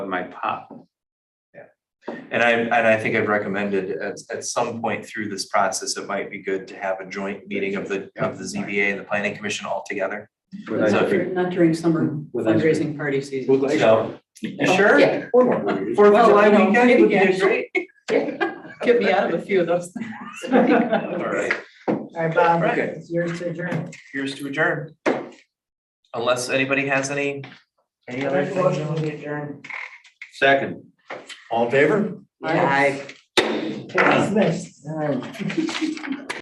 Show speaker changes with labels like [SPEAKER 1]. [SPEAKER 1] my pop.
[SPEAKER 2] And I, and I think I've recommended at, at some point through this process, it might be good to have a joint meeting of the, of the ZBA and the planning commission all together.
[SPEAKER 3] Not during- not during summer
[SPEAKER 1] With ice cream.
[SPEAKER 3] fundraising party season.
[SPEAKER 1] Would like-
[SPEAKER 2] So, you sure?
[SPEAKER 3] Yeah.
[SPEAKER 1] Or more.
[SPEAKER 2] Fourth of
[SPEAKER 3] Well,
[SPEAKER 2] July
[SPEAKER 3] you know,
[SPEAKER 2] weekend would be
[SPEAKER 3] yeah.
[SPEAKER 2] great.
[SPEAKER 3] Get me out of a few of those.
[SPEAKER 2] All right,
[SPEAKER 4] All right, Bob,
[SPEAKER 2] Right.
[SPEAKER 4] it's yours to adjourn.
[SPEAKER 2] here's to adjourn. Unless anybody has any, any other things.
[SPEAKER 4] adjourn.
[SPEAKER 1] Second.
[SPEAKER 2] All in favor?
[SPEAKER 3] Aye.
[SPEAKER 4] Dismissed. All right.